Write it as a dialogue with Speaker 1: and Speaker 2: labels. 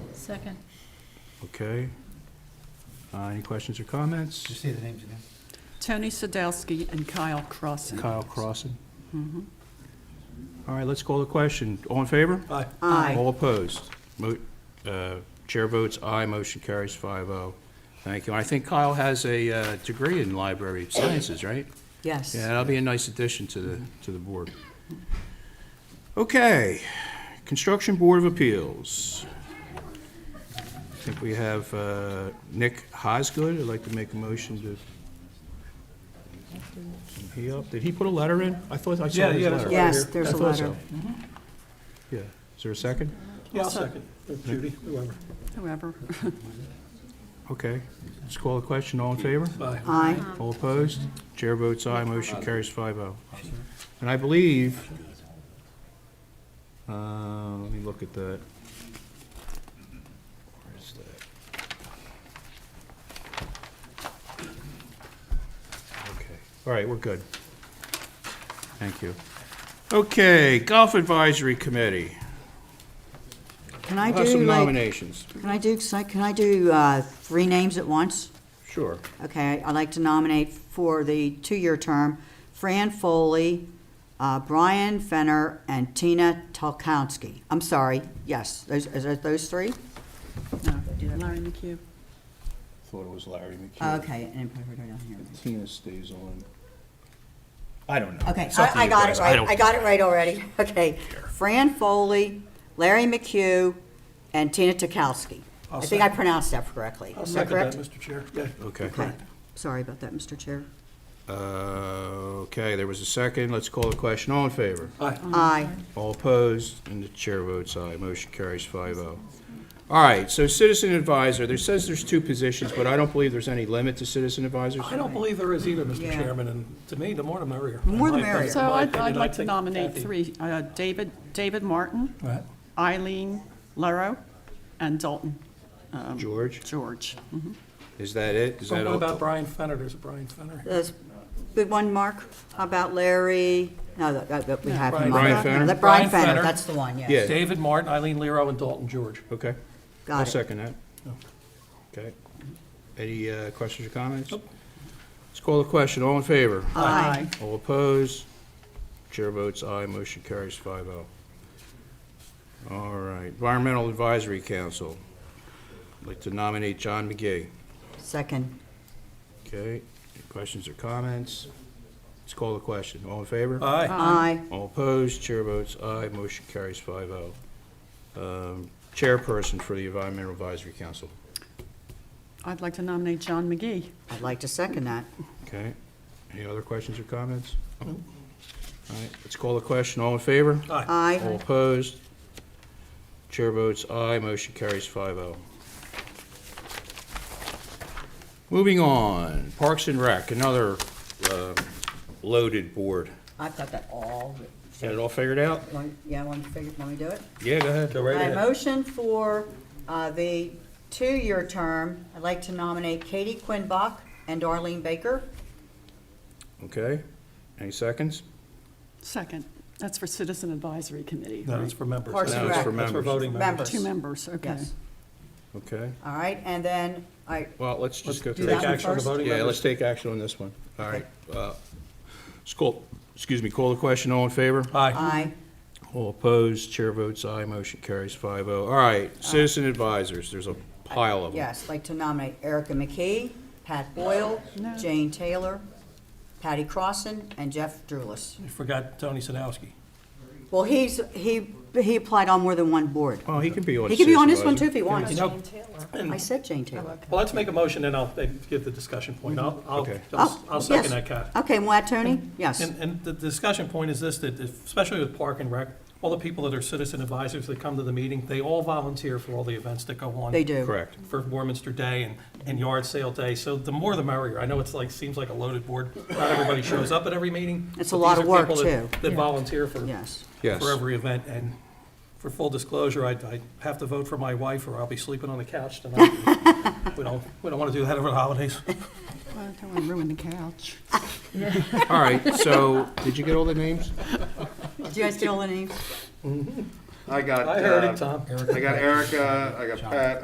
Speaker 1: Second.
Speaker 2: Okay. Uh, Any questions or comments?
Speaker 3: Just say the names again.
Speaker 4: Tony Sadowski and Kyle Crossen.
Speaker 2: Kyle Crossen. All right, let's call the question. All in favor? Aye.
Speaker 4: Aye.
Speaker 2: All opposed? Mo- uh, Chair votes aye, motion carries 5-0. Thank you. I think Kyle has a uh, degree in library sciences, right?
Speaker 4: Yes.
Speaker 2: Yeah, that'll be a nice addition to the, to the board. Okay, Construction Board of Appeals. I think we have uh, Nick Hosgood, I'd like to make a motion to... He up- Did he put a letter in? I thought I saw
Speaker 5: Yeah,
Speaker 2: his
Speaker 5: yeah, that's
Speaker 2: letter.
Speaker 5: right.
Speaker 4: Yes,
Speaker 5: here.
Speaker 4: there's
Speaker 2: I
Speaker 4: a
Speaker 2: thought so.
Speaker 4: letter,
Speaker 2: Yeah, is there a second?
Speaker 5: Yeah, I'll second. Or Judy, whoever.
Speaker 4: however.
Speaker 2: Okay, let's call the question, all in favor?
Speaker 5: Aye.
Speaker 4: Aye.
Speaker 2: All opposed? Chair votes aye, motion carries 5-0. And I believe, uh, let me look at that. Where's that? Okay, all right, we're good. Thank you. Okay, Golf Advisory Committee.
Speaker 6: Can I
Speaker 2: We'll Have some
Speaker 6: do like,
Speaker 2: nominations.
Speaker 6: can I do, si- can I do uh, three names at once?
Speaker 2: Sure.
Speaker 6: Okay, I'd like to nominate for the two-year term Fran Foley, uh, Brian Fenner, and Tina Tolkowski. I'm sorry, yes, those, is it those three?
Speaker 4: No, Larry McHugh.
Speaker 2: Thought it was Larry McHugh.
Speaker 6: Okay, and I put her down here.
Speaker 2: Tina stays on. I don't know.
Speaker 6: Okay,
Speaker 2: It's up to
Speaker 6: I, I
Speaker 2: you
Speaker 6: got
Speaker 2: guys.
Speaker 6: it right,
Speaker 2: don't-
Speaker 6: I got it right already, okay. Fran Foley, Larry McHugh, and Tina Tolkowski.
Speaker 5: I'll
Speaker 6: I think I
Speaker 5: second.
Speaker 6: pronounced that correctly.
Speaker 5: I'll
Speaker 6: Is that
Speaker 5: second that,
Speaker 6: correct?
Speaker 5: Mr. Chair. Yeah.
Speaker 2: Okay.
Speaker 6: Okay, sorry about that, Mr. Chair.
Speaker 2: Uh, Okay, there was a second. Let's call the question. All in favor?
Speaker 5: Aye.
Speaker 6: Aye.
Speaker 2: All opposed? And the chair votes aye. Motion carries 5-0. All right, so citizen advisor, there says there's two positions, but I don't believe there's any limit to citizen advisors.
Speaker 5: I don't believe there is either, Mr.
Speaker 6: Yeah.
Speaker 5: Chairman, and to me, the more the merrier.
Speaker 6: The more the
Speaker 5: In my-
Speaker 6: merrier.
Speaker 5: in
Speaker 4: So
Speaker 5: my
Speaker 4: I'd, I'd
Speaker 5: opinion,
Speaker 4: like
Speaker 5: I
Speaker 4: to
Speaker 5: think
Speaker 4: nominate
Speaker 5: Kathy-
Speaker 4: three, uh, David, David Martin,
Speaker 5: All right.
Speaker 4: Eileen Lero, and Dalton
Speaker 2: George,
Speaker 4: George. Mhm.
Speaker 2: is that it? Is
Speaker 5: But
Speaker 2: that
Speaker 5: Oh, what about
Speaker 2: all?
Speaker 5: Brian Fenner? There's a Brian Fenner. here.
Speaker 6: That's Good one, Mark, How about Larry, no, that- that, that we have him on.
Speaker 2: Brian
Speaker 6: that.
Speaker 2: Fenner?
Speaker 6: That Brian
Speaker 5: Brian
Speaker 6: Fenner,
Speaker 5: Fenner.
Speaker 6: that's the one,
Speaker 2: Yeah.
Speaker 6: yes.
Speaker 5: David Martin, Eileen Lero, and Dalton George.
Speaker 2: Okay, I'll
Speaker 6: Got it.
Speaker 2: second that. Okay. Any uh, questions or comments? Let's call the question. All in favor?
Speaker 6: Aye.
Speaker 2: All opposed? Chair votes aye, motion carries 5-0. All right, Environmental Advisory Council. I'd like to nominate John McGee.
Speaker 6: Second.
Speaker 2: Okay, any questions or comments? Let's call the question. All in favor?
Speaker 5: Aye.
Speaker 6: Aye.
Speaker 2: All opposed? Chair votes aye, motion carries 5-0. Um, Chairperson for the Environmental Advisory Council.
Speaker 4: I'd like to nominate John McGee.
Speaker 6: I'd like to second that.
Speaker 2: Okay, any other questions or comments? All right, let's call the question. All in favor? All
Speaker 6: Aye.
Speaker 2: opposed? Chair votes aye, motion carries oh. 5-0. Moving on, Parks and Rec, another um, loaded board.
Speaker 6: I've got that all. written.
Speaker 2: Got it all figured out?
Speaker 6: Want- Yeah, want to figure, want me to do it?
Speaker 2: Yeah, go ahead. Go
Speaker 6: I motion for uh, the two-year term, I'd like to nominate Katie Quinn Bach and Darlene Baker.
Speaker 2: Okay, any seconds?
Speaker 4: Second, that's for Citizen Advisory Committee,
Speaker 5: No,
Speaker 4: right?
Speaker 5: it's for members.
Speaker 6: Parks and
Speaker 2: No, it's
Speaker 6: Rec.
Speaker 2: for
Speaker 5: That's for
Speaker 2: members.
Speaker 5: voting members.
Speaker 4: Two members, okay.
Speaker 6: Yes.
Speaker 2: Okay,
Speaker 6: All right, and then, I,
Speaker 2: well, let's just go
Speaker 5: Let's
Speaker 2: through.
Speaker 5: take
Speaker 6: that one
Speaker 5: action on the
Speaker 6: first?
Speaker 5: voting
Speaker 2: Yeah, let's
Speaker 5: members.
Speaker 2: take action on this one. All right. uh, let's call- excuse me, call the question, all in favor?
Speaker 5: Aye.
Speaker 6: aye.
Speaker 2: All opposed, chair votes aye, motion carries 5-0. All right,
Speaker 6: Uh,
Speaker 2: citizen advisors, there's a pile of them.
Speaker 6: Yes, like to nominate Erica McKee, Pat Boyle,
Speaker 4: No.
Speaker 6: Jane Taylor, Patty Crosson, and Jeff Drulis.
Speaker 5: You forgot Tony Sadowski.
Speaker 6: Well, he's, he, he applied on more than one board.
Speaker 2: Oh, he can be on.
Speaker 6: He could be on this
Speaker 2: Citizen
Speaker 6: one too if
Speaker 2: Advisor.
Speaker 6: he wants.
Speaker 5: You know,
Speaker 6: I said Jane Taylor.
Speaker 5: well, let's make a motion, and I'll maybe give the discussion point. I'll, I'll,
Speaker 2: Mm-hmm. Okay.
Speaker 5: I'll I'll
Speaker 6: Oh, yes.
Speaker 5: second that, Kathy.
Speaker 6: Okay, Moat Tony? Yes.
Speaker 5: And, and the discussion point is this, that if- especially with Park and Rec, all the people that are citizen advisors that come to the meeting, they all volunteer for all the events that go on.
Speaker 6: They do.
Speaker 2: Correct.
Speaker 5: For Warminster Day and, and Yard Sale Day, so the more the merrier. I know it's like, seems like a loaded board. Not everybody shows up at every meeting.
Speaker 6: It's a
Speaker 5: but
Speaker 6: lot
Speaker 5: these
Speaker 6: of
Speaker 5: are
Speaker 6: work,
Speaker 5: people that-
Speaker 6: too.
Speaker 5: That volunteer for.
Speaker 6: Yes.
Speaker 2: Yes.
Speaker 5: For every event, and for full disclosure, I, I have to vote for my wife or I'll be sleeping on the couch tonight. We don't, we don't want to do that over the holidays.
Speaker 4: Well, I don't want to ruin the couch.
Speaker 2: All right, so, did you get all the names?
Speaker 6: Did you guys get all the names?
Speaker 7: I got.
Speaker 5: I heard it,
Speaker 7: uh,
Speaker 5: Tom.
Speaker 7: I got Erica, I got Pat,